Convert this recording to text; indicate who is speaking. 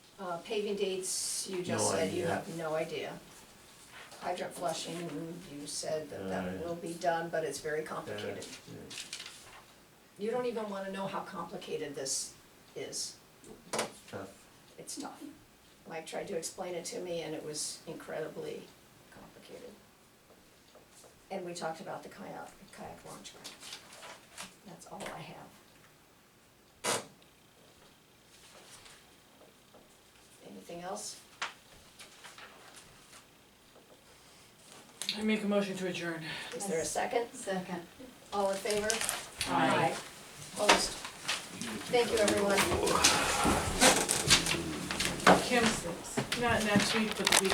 Speaker 1: Uh, paving dates, you just
Speaker 2: No
Speaker 1: said you
Speaker 2: idea.
Speaker 1: have no idea. Hydrant flushing, you said that that
Speaker 2: Uh,
Speaker 1: will be done, but it's very
Speaker 2: that,
Speaker 1: complicated.
Speaker 2: yeah.
Speaker 1: You don't even wanna know how complicated this is,
Speaker 2: Tough.
Speaker 1: it's tough. Mike tried to explain it to me and it was incredibly complicated. And we talked about the kayak, kayak launch grant. That's all I have. Anything else?
Speaker 3: I make a motion to adjourn.
Speaker 1: Is there a second?
Speaker 4: Second.
Speaker 1: All in favor?
Speaker 3: Aye.
Speaker 1: Opposed? Thank you, everyone.
Speaker 3: Kim, not next week, but the week